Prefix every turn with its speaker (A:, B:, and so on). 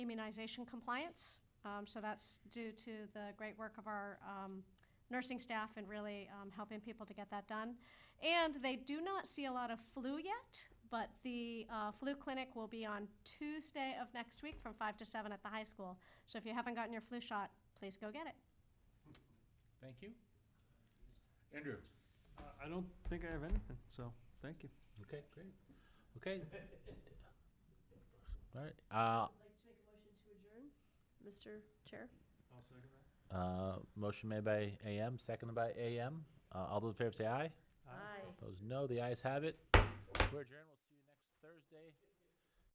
A: immunization compliance. Um, So that's due to the great work of our um, nursing staff and really um, helping people to get that done. And they do not see a lot of flu yet, but the uh, flu clinic will be on Tuesday of next week from 5 to 7 at the high school. So if you haven't gotten your flu shot, please go get it.
B: Thank you.
C: Andrew?
D: Uh, I don't think I have anything, so, thank you.
C: Okay, great. Okay. All right, uh,
E: I'd like to make a motion to adjourn, Mr. Chair.
D: I'll second
C: uh, motion made by AM, seconded by AM. Uh, all those in favor say aye.
D: Aye.
C: Opposed, no. The ayes have it. We're adjourned. We'll see you next Thursday.